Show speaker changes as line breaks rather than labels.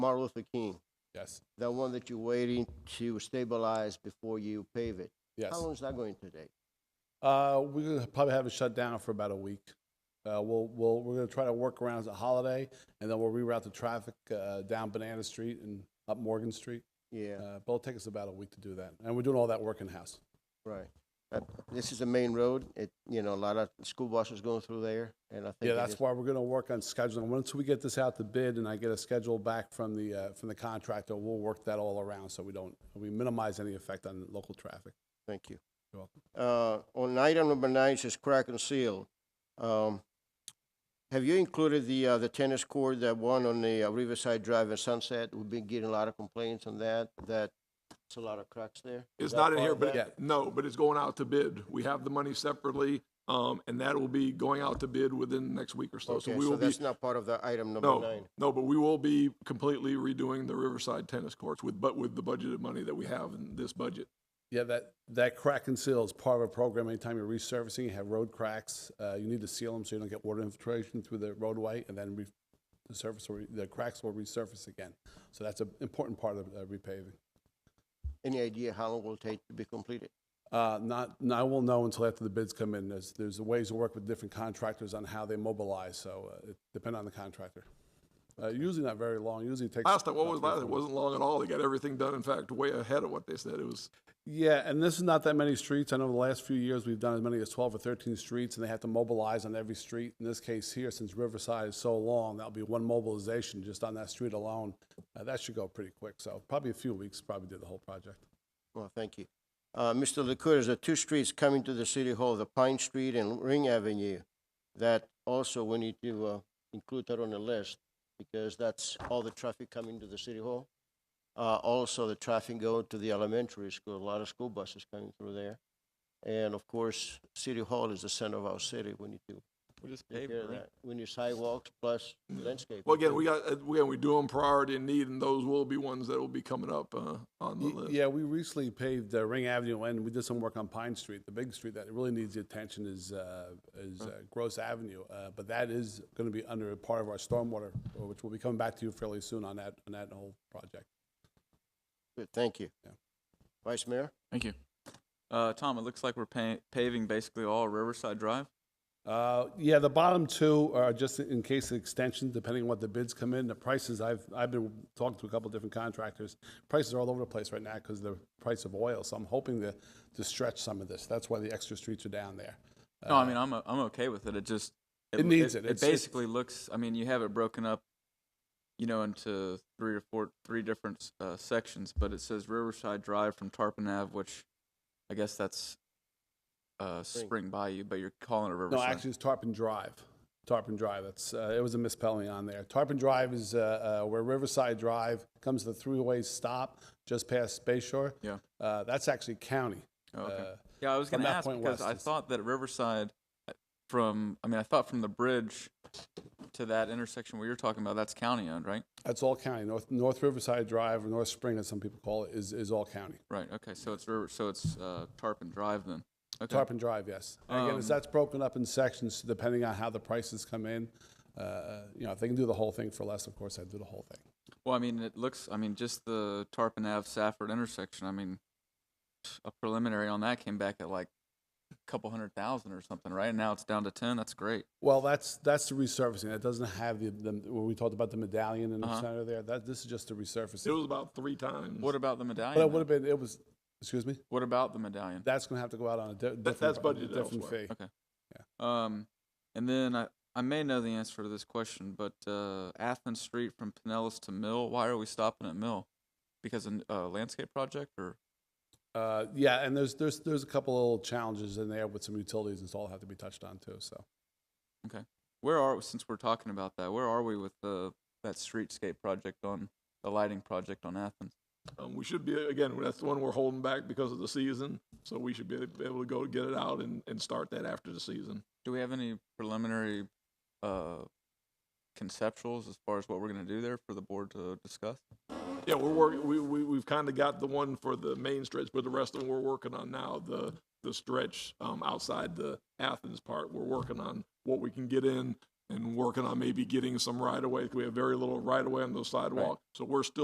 Martin Luther King,
Yes.
that one that you're waiting to stabilize before you pave it.
Yes.
How long is that going to take?
Uh, we're gonna probably have it shut down for about a week. Uh, we'll, we'll, we're gonna try to work around the holiday, and then we'll reroute the traffic uh, down Banana Street and up Morgan Street.
Yeah,
Uh, but it'll take us about a week to do that, and we're doing all that work in house.
right. Uh, This is the main road. It, you know, a lot of school buses going through there, and I think.
Yeah,
it
that's
is-
why we're gonna work on scheduling. Once we get this out to bid and I get a schedule back from the uh, from the contractor, we'll work that all around so we don't we minimize any effect on local traffic.
Thank you.
You're welcome.
Uh, on item number nine, it says crack and seal. Um, have you included the, uh, the tennis court, that one on the uh, Riverside Drive and Sunset? We've been getting a lot of complaints on that, that it's a lot of cracks there. Is
It's
that
not in
part
here,
of
but,
that?
it- no, but it's going out to bid. We have the money separately, um, and that will be going out to bid within the next week or so. So
Okay,
we
so
will be,
that's not part of the item number
no,
nine.
no, but we will be completely redoing the Riverside tennis courts with, but with the budgeted money that we have in this budget.
Yeah, that that crack and seal is part of a program. Anytime you're resurfacing, you have road cracks. Uh, you need to seal them so you don't get water infiltration through the roadway, and then re- the surface will re- the cracks will resurface again. So that's an important part of uh, repaving.
Any idea how long it will take to be completed?
Uh, Not, not- I won't know until after the bids come in. There's, there's ways to work with different contractors on how they mobilize, so uh, it depend on the contractor. Uh, Usually not very long, usually it takes.
Last time, what
about
was
three or
last,
four
it
months.
wasn't long at all. They got everything done, in fact, way ahead of what they said. It was,
Yeah, and this is not that many streets. I know the last few years, we've done as many as 12 or 13 streets, and they have to mobilize on every street. In this case here, since Riverside is so long, that'll be one mobilization just on that street alone. Uh, That should go pretty quick, so probably a few weeks, probably did the whole project.
Well, thank you. Uh, Mr. Licouris, the two streets coming to the city hall, the Pine Street and Ring Avenue, that also we need to, uh, include that on the list because that's all the traffic coming to the city hall. Uh, also the traffic going to the elementary school, a lot of school buses coming through there. And of course, city hall is the center of our city. We need to
We'll just
take
pave
care
it,
of
right?
that. We need sidewalks plus landscaping.
Mm. well, again, we got, uh, again, we do them priority and need, and those will be ones that will be coming up, uh, on the
Y-
list.
Yeah, we recently paved uh, Ring Avenue and we did some work on Pine Street. The big street that really needs the attention is, uh, is uh, Gross Avenue. Uh, But that is going to be under a part of our stormwater, uh, which will be coming back to you fairly soon on that, on that whole project.
Good, thank you.
Yeah.
Vice Mayor?
Thank you. Uh, Tom, it looks like we're pa- paving basically all Riverside Drive.
Uh, Yeah, the bottom two are just in case of extension, depending on what the bids come in. The prices, I've, I've been talking to a couple different contractors. Prices are all over the place right now because of the price of oil. So I'm hoping to, to stretch some of this. That's why the extra streets are down there.
No, I mean, I'm, o- I'm okay with it. It just.
Uh, It needs it.
It
It's- it's-
basically looks, I mean, you have it broken up, you know, into three or four, three different, uh, sections, but it says Riverside Drive from Tarpon Ave, which I guess that's, uh, Spring Bayou, but you're calling it
No,
Riverside.
actually, it's Tarpon Drive. Tarpon Drive. That's uh, it was a misspelling on there. Tarpon Drive is uh, uh, where Riverside Drive comes to the three-way stop just past Space Shore.
Yeah.
Uh, that's actually county.
Oh, okay.
Uh,
Yeah, I was
from
going to
that
ask
point
because
west
I
is-
thought that Riverside uh, from, I mean, I thought from the bridge to that intersection where you're talking about, that's county owned, right?
That's all county. North North Riverside Drive or North Spring, as some people call it, is, is all county.
Right. Okay. So it's river, so it's uh, Tarpon Drive then. Okay.
Tarpon Drive, yes. And again, it's,
Um,
that's broken up in sections depending on how the prices come in. Uh, you know, if they can do the whole thing for less, of course, I'd do the whole thing.
Well, I mean, it looks. I mean, just the Tarpon Ave Safford intersection. I mean, a preliminary on that came back at like a couple hundred thousand or something, right? And now it's down to ten. That's great.
Well, that's that's the resurfacing. That doesn't have the, the when we talked about the medallion in the center there. That this is just the resurfacing.
Uh-huh. It was about three times.
What about the medallion?
But it would
though?
have been, it was, excuse me,
what about the medallion?
that's going to have to go out on a di- different.
that's
on a
budgeted
Different
elsewhere.
fee.
Um, and then I I may know the answer to this question, but uh, Athens Street from Pinellas to Mill. Why are we stopping at Mill? Because of a landscape project or
Uh, Yeah, and there's, there's, there's a couple little challenges in there with some utilities and so all have to be touched on too, so.
where are since we're talking about that? Where are we with the that streetscape project on the lighting project on Athens?
Um, we should be, again, that's the one we're holding back because of the season, so we should be able to go get it out and, and start that after the season.
Do we have any preliminary uh, conceptuals as far as what we're going to do there for the board to discuss?
Yeah, we're working, we, we, we've kind of got the one for the main stretch, but the rest of them we're working on now, the, the stretch, um, outside the Athens part, we're working on what we can get in and working on maybe getting some right of way. We have very little right of way on those sidewalks. So we're still